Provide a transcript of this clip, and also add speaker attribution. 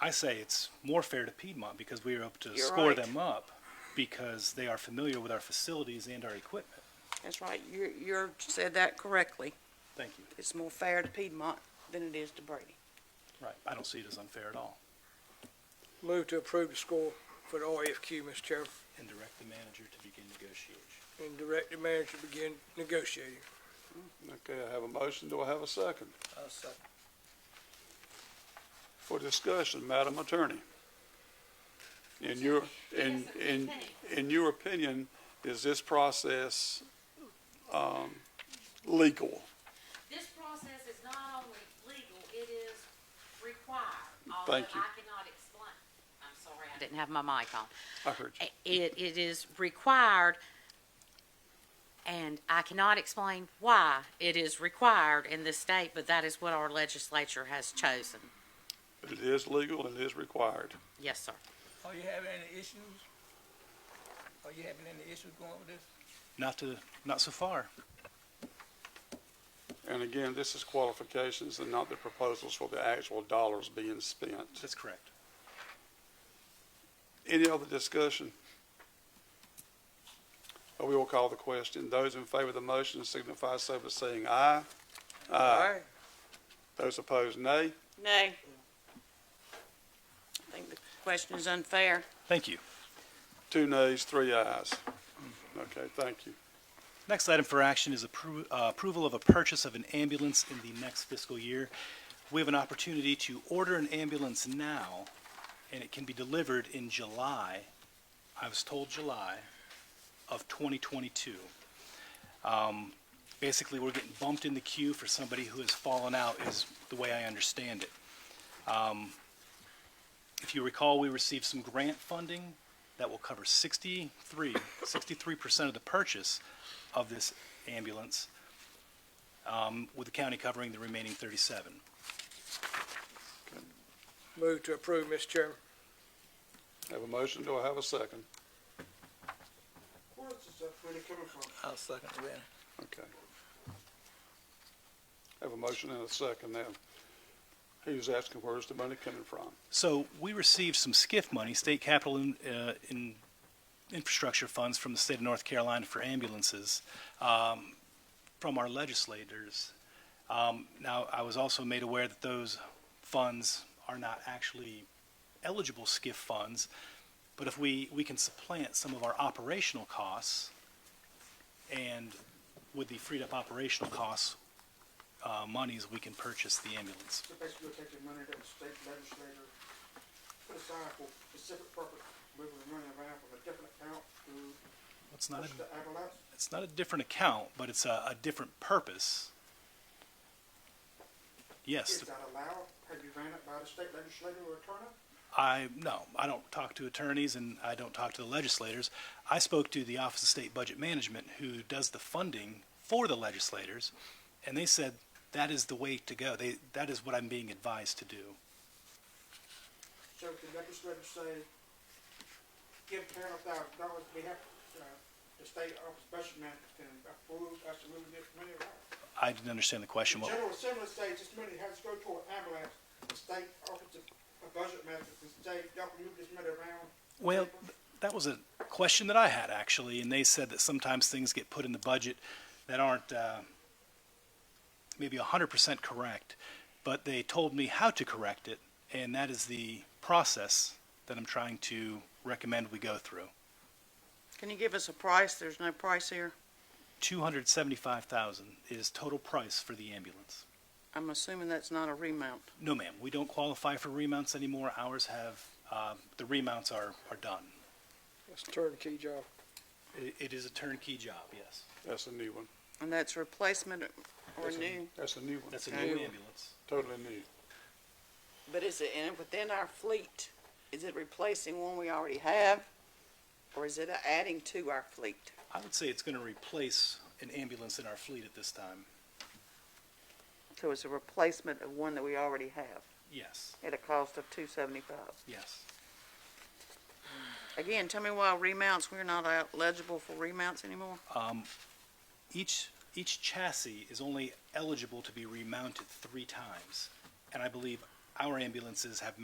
Speaker 1: I say it's more fair to Piedmont because we were able to
Speaker 2: You're
Speaker 1: score
Speaker 2: right.
Speaker 1: them up because they are familiar with our facilities and our equipment.
Speaker 2: That's right. You, you said that correctly.
Speaker 1: Thank you.
Speaker 2: It's more fair to Piedmont than it is to Brady.
Speaker 1: Right. I don't see it as unfair at all.
Speaker 3: Move to approve the score for the RFQ, Mr. Chairman,
Speaker 1: And direct the manager to begin negotiation.
Speaker 3: and direct the manager to begin negotiating.
Speaker 4: Okay, I have a motion. Do I have a second?
Speaker 3: I'll second.
Speaker 4: For discussion, Madam Attorney. In your, in, in, in your opinion, is this process, um, legal?
Speaker 5: This process is not only legal, it is required, although I
Speaker 4: Thank you.
Speaker 5: cannot explain. I'm sorry, I didn't have my mic on.
Speaker 4: I heard you.
Speaker 5: I- It, it is required, and I cannot explain why it is required in this state, but that is what our legislature has chosen.
Speaker 4: It is legal and it is required.
Speaker 5: Yes, sir.
Speaker 3: Are you having any issues? Are you having any issues going with this?
Speaker 1: Not to, not so far.
Speaker 4: And again, this is qualifications and not the proposals for the actual dollars being spent.
Speaker 1: That's correct.
Speaker 4: Any other discussion? Uh, We will call the question. Those in favor of the motion signify so by saying aye.
Speaker 3: Aye.
Speaker 4: Those opposed, nay.
Speaker 2: Nay. I think the question is unfair.
Speaker 1: Thank you.
Speaker 4: Two nays, three ayes. Okay, thank you.
Speaker 1: Next item for action is appro- uh, approval of a purchase of an ambulance in the next fiscal year. We have an opportunity to order an ambulance now, and it can be delivered in July, I was told July, of 2022. Um, Basically, we're getting bumped in the queue for somebody who has fallen out, is the way I understand it. Um, If you recall, we received some grant funding that will cover 63, 63% of the purchase of this ambulance, um, with the county covering the remaining 37.
Speaker 3: Move to approve, Mr. Chairman.
Speaker 4: Have a motion, do I have a second?
Speaker 6: Where's this stuff really coming from?
Speaker 3: I'll second that.
Speaker 4: Okay. Have a motion and a second now. He was asking where's the money coming from?
Speaker 1: So we received some SCIF money, state capital in, uh, in infrastructure funds from the state of North Carolina for ambulances, um, from our legislators. Um, now, I was also made aware that those funds are not actually eligible SCIF funds, but if we, we can supplant some of our operational costs, and with the freed up operational costs, uh, monies, we can purchase the ambulance.
Speaker 6: So basically, we're taking money that the state legislator put aside for specific purpose, moving the money around from a different account to
Speaker 1: It's not
Speaker 6: push
Speaker 1: a
Speaker 6: the ambulance.
Speaker 1: it's not a different account, but it's a, a different purpose. Yes,
Speaker 6: Is that allowed? Have you ran it by the state legislator or attorney?
Speaker 1: I, no, I don't talk to attorneys and I don't talk to the legislators. I spoke to the Office of State Budget Management, who does the funding for the legislators, and they said that is the way to go. They, that is what I'm being advised to do.
Speaker 6: So if the legislator say, give ten thousand dollars, we have, uh, the state office budget manager can approve us to move this money around.
Speaker 1: I didn't understand the question.
Speaker 6: The
Speaker 1: What,
Speaker 6: General Assembly says this money has to go toward ambulance, the state office of of budget manager can say, y'all can move this money around.
Speaker 1: Well, th- that was a question that I had actually, and they said that sometimes things get put in the budget that aren't uh, maybe 100% correct, but they told me how to correct it, and that is the process that I'm trying to recommend we go through.
Speaker 2: Can you give us a price? There's no price here.
Speaker 1: 275,000 is total price for the ambulance.
Speaker 2: I'm assuming that's not a remount.
Speaker 1: No, ma'am, we don't qualify for remounts anymore. Ours have uh, the remounts are are done.
Speaker 3: That's a turnkey job.
Speaker 1: It, it is a turnkey job. Yes,
Speaker 4: That's a new one.
Speaker 2: And that's replacement or
Speaker 4: That's a-
Speaker 2: new?
Speaker 4: That's a new one,
Speaker 1: that's a
Speaker 2: Okay.
Speaker 1: new ambulance.
Speaker 4: totally new.
Speaker 2: But is it in, within our fleet? Is it replacing one we already have? Or is it adding to our fleet?
Speaker 1: I would say it's going to replace an ambulance in our fleet at this time.
Speaker 2: So it's a replacement of one that we already have
Speaker 1: Yes,
Speaker 2: at a cost of two seventy-five.
Speaker 1: yes.
Speaker 2: Again, tell me why remounts, we're not eligible for remounts anymore?
Speaker 1: Um, each each chassis is only eligible to be remounted three times, and I believe our ambulances have